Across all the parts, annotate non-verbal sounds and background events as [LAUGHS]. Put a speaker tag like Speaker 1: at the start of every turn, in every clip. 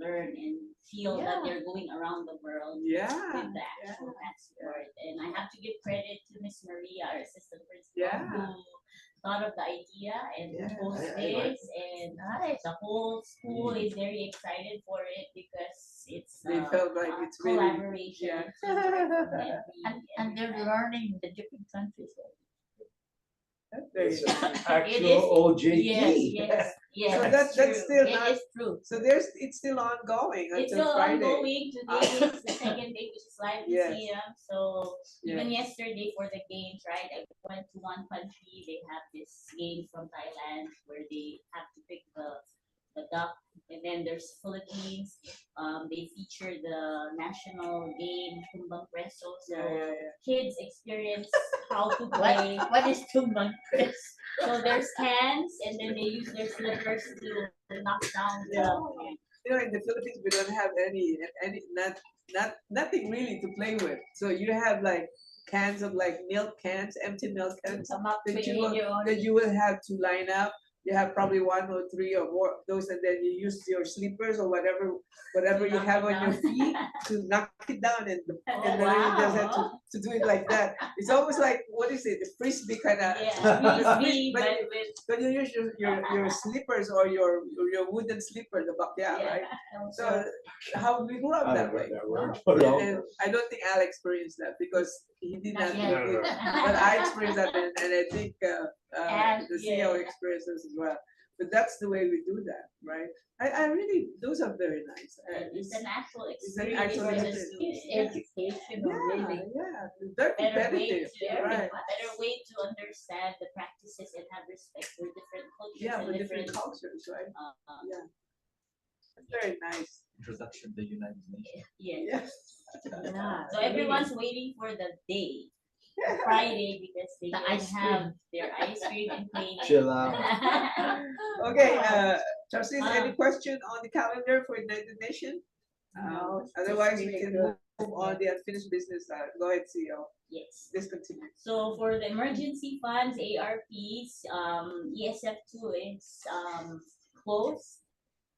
Speaker 1: learn and feel that they're going around the world
Speaker 2: Yeah.
Speaker 1: with the actual passport. And I have to give credit to Miss Maria, our assistant principal,
Speaker 2: Yeah.
Speaker 1: who thought of the idea and
Speaker 2: Yeah.
Speaker 1: proposed
Speaker 3: I- I like
Speaker 1: this. And uh, the whole school is very excited for it because it's
Speaker 2: Mm. They
Speaker 1: uh,
Speaker 2: felt like
Speaker 1: a
Speaker 2: it's really-
Speaker 1: collaboration.
Speaker 2: yeah.
Speaker 1: so every-
Speaker 2: [LAUGHS]
Speaker 4: And, and they're
Speaker 1: every-
Speaker 4: learning the different countries.
Speaker 2: There you
Speaker 3: It's
Speaker 2: go.
Speaker 3: an
Speaker 1: It
Speaker 3: Actual E.
Speaker 1: is-
Speaker 3: OJT.
Speaker 1: Yes, yes, yes.
Speaker 2: [LAUGHS]
Speaker 1: it's
Speaker 2: So that- that's
Speaker 1: true.
Speaker 2: still
Speaker 1: It
Speaker 2: not-
Speaker 1: is true.
Speaker 2: So there's, it's still ongoing
Speaker 1: It's
Speaker 2: until
Speaker 1: still
Speaker 2: Friday.
Speaker 1: ongoing. Today is
Speaker 2: [LAUGHS]
Speaker 1: the second day, which is live
Speaker 2: Yes.
Speaker 1: museum. So
Speaker 2: Yeah.
Speaker 1: even yesterday for the games, right? I went to one country. They have this game from Thailand where they have to pick the the duck, and then there's Philippines. Um, they feature the national game tumbang preso. So
Speaker 2: Yeah, yeah, yeah.
Speaker 1: kids
Speaker 2: [LAUGHS]
Speaker 1: experience how to play.
Speaker 4: What, what is two months?
Speaker 1: So there's cans, and then they use their slippers to knock down the.
Speaker 2: You know, in the Philippines, we don't have any, any, not, not, nothing really to play with. So you have like cans of like milk cans, empty milk cans
Speaker 1: Come up
Speaker 2: Did
Speaker 1: with
Speaker 2: you look-
Speaker 1: your own.
Speaker 2: that you will have to line up. You have probably one or three or more of those, and then you use your slippers or whatever, whatever you
Speaker 1: Knock it
Speaker 2: have on your
Speaker 1: down.
Speaker 2: feet to knock it down and, the-
Speaker 1: Oh,
Speaker 2: and then you just have to,
Speaker 1: wow.
Speaker 2: to do it like that. It's almost like, what is it, the frisbee kind of. [LAUGHS]
Speaker 1: Yeah, me, but with.
Speaker 2: But you use your, your, your slippers or your, your wooden slipper, the, ba- yeah,
Speaker 1: [LAUGHS]
Speaker 2: right? So how we grew up
Speaker 3: I
Speaker 2: that
Speaker 3: don't know
Speaker 2: way.
Speaker 3: that word, but all-
Speaker 2: And I don't think Al experienced that because he did
Speaker 1: Not
Speaker 2: not
Speaker 1: yet.
Speaker 2: live it. [LAUGHS] But
Speaker 1: [LAUGHS]
Speaker 2: I experienced that and, and I think, uh, uh,
Speaker 1: And-
Speaker 2: the CEO
Speaker 1: yeah.
Speaker 2: experiences as well. But that's the way we do that, right? I, I really, those are very nice. Uh,
Speaker 1: It's an actual
Speaker 2: it's an
Speaker 1: experience
Speaker 2: actual
Speaker 1: for the
Speaker 2: experience.
Speaker 1: students.
Speaker 4: It's
Speaker 2: Yeah,
Speaker 4: educational, really.
Speaker 2: yeah,
Speaker 1: Better
Speaker 2: they're
Speaker 1: way
Speaker 2: competitive,
Speaker 1: to,
Speaker 2: right?
Speaker 1: better way to understand the practices and have respect for different
Speaker 2: Yeah,
Speaker 1: cultures
Speaker 2: with
Speaker 1: and
Speaker 2: different
Speaker 1: different.
Speaker 2: cultures, right?
Speaker 1: uh, uh,
Speaker 2: Very nice,
Speaker 5: introduction to the United Nations.
Speaker 1: Yeah,
Speaker 2: yes.
Speaker 4: Yeah,
Speaker 1: so
Speaker 4: really.
Speaker 1: everyone's waiting for the day,
Speaker 2: [LAUGHS]
Speaker 1: Friday, because they
Speaker 4: The
Speaker 1: can
Speaker 4: ice
Speaker 1: have their ice cream
Speaker 4: [LAUGHS]
Speaker 1: and play.
Speaker 5: Chill out.
Speaker 2: Okay, uh, trustees,
Speaker 1: Ah.
Speaker 2: any question on the calendar for United Nation?
Speaker 4: No,
Speaker 2: Um,
Speaker 4: it's just
Speaker 2: Otherwise, we
Speaker 4: really
Speaker 2: can
Speaker 4: good.
Speaker 2: move on the unfinished business, uh, go ahead, CEO,
Speaker 1: Yes.
Speaker 2: discontinue.
Speaker 1: So for the emergency funds, ARPs, um, ESF two is, um, closed.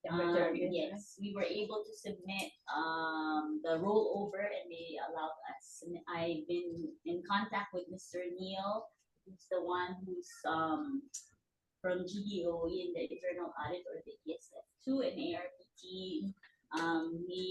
Speaker 4: The
Speaker 1: Um,
Speaker 4: majority, right?
Speaker 1: yes, we were able to submit, um, the rollover and they allowed us. And I've been in contact with Mr. Neil, who's the one who's, um, from GDOE in the internal audit or the ESF two and ARPT. Um, he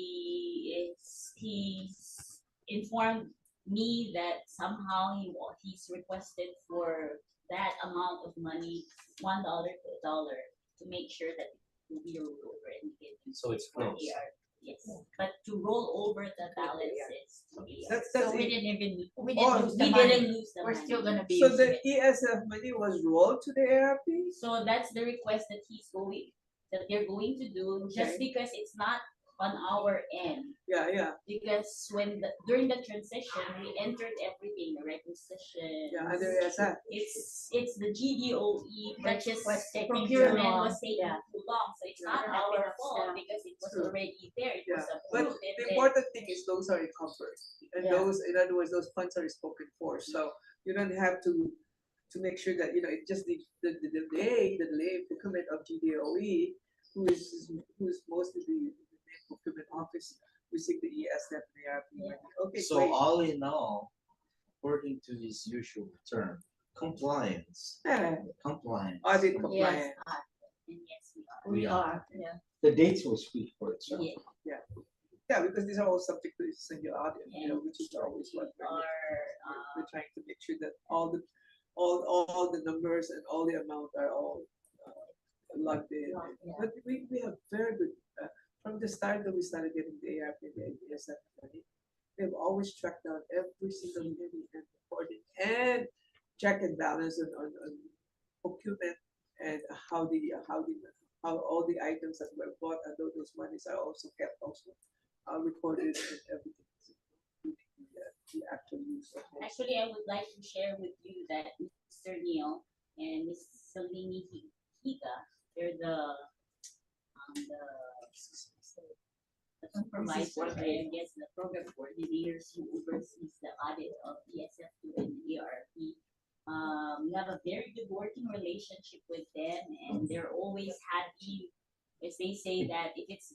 Speaker 1: is, he's informed me that somehow he wa- he's requested for that amount of money, one dollar to a dollar, to make sure that it will be rolled over and get
Speaker 5: So it's
Speaker 1: for the year. Yes, but to roll over the balances. to E be-
Speaker 2: That's,
Speaker 4: So
Speaker 2: Oh, that's
Speaker 4: we
Speaker 2: it.
Speaker 4: didn't even, we
Speaker 2: Or-
Speaker 4: didn't lose the
Speaker 1: We
Speaker 4: money.
Speaker 1: didn't lose the
Speaker 4: We're still
Speaker 1: money.
Speaker 4: gonna be.
Speaker 2: So
Speaker 4: using
Speaker 2: the
Speaker 4: it.
Speaker 2: ESF money was rolled to the ARP?
Speaker 1: So that's the request that he's going, that they're going to do, just because it's not on our end.
Speaker 2: Yeah, yeah,
Speaker 1: Because when, the- during the transition, we entered everything, the requisition.
Speaker 2: yeah, E under ESF,
Speaker 1: It's, it's the GDOE E that just
Speaker 4: was taking too
Speaker 1: procurement
Speaker 4: long,
Speaker 1: was taking
Speaker 4: yeah.
Speaker 1: too long, so it's not
Speaker 4: Yeah.
Speaker 1: our
Speaker 4: Yeah.
Speaker 1: fault because it was
Speaker 2: True.
Speaker 1: already there, it
Speaker 2: yeah.
Speaker 1: was
Speaker 2: But
Speaker 1: approved. and
Speaker 2: the
Speaker 1: then-
Speaker 2: important thing is those are encumbered. And
Speaker 4: Yeah.
Speaker 2: those, in other words, those funds are spoken for, so you don't have to, to make sure that, you know, it just the, the, the delay, the delay in procurement of GDOE, E, who is, who is mostly the the main procurement office, received the E ESF and ARP money. Okay,
Speaker 5: So
Speaker 2: great.
Speaker 5: all in all, according to his usual term, compliance,
Speaker 2: Yeah,
Speaker 5: compliance.
Speaker 2: Audit
Speaker 5: compliance.
Speaker 2: compliance,
Speaker 1: And yes, we are.
Speaker 4: We
Speaker 5: Yeah.
Speaker 4: are, yeah.
Speaker 3: The dates will speak for itself.
Speaker 1: Yeah,
Speaker 2: yeah, because these are all subject to single audit, you know, which is always
Speaker 1: we
Speaker 2: what we're doing.
Speaker 1: are,
Speaker 2: we're-
Speaker 1: uh,
Speaker 2: we're trying to make sure that all the, all, all the numbers and all the amount are all uh, logged in.
Speaker 1: Logged in.
Speaker 2: But we, we have very good, uh, from the start that we started getting the ARP, and the ASF money, they've always tracked down every single penny and reported and check and balance on, on, on procurement and how the, how the, how all the items that were bought and tho- those monies are also kept also uh, recorded and everything. including the- The actual use of it.
Speaker 1: Actually, I would like to share with you that Mr. Neil and Ms. Salini Hi- Higa, they're the, um, the the supervisors, or I guess the program coordinators who oversees the audit of E ESF and ERP. Um, we have a very good working relationship with them and they're always happy, as they say that if it's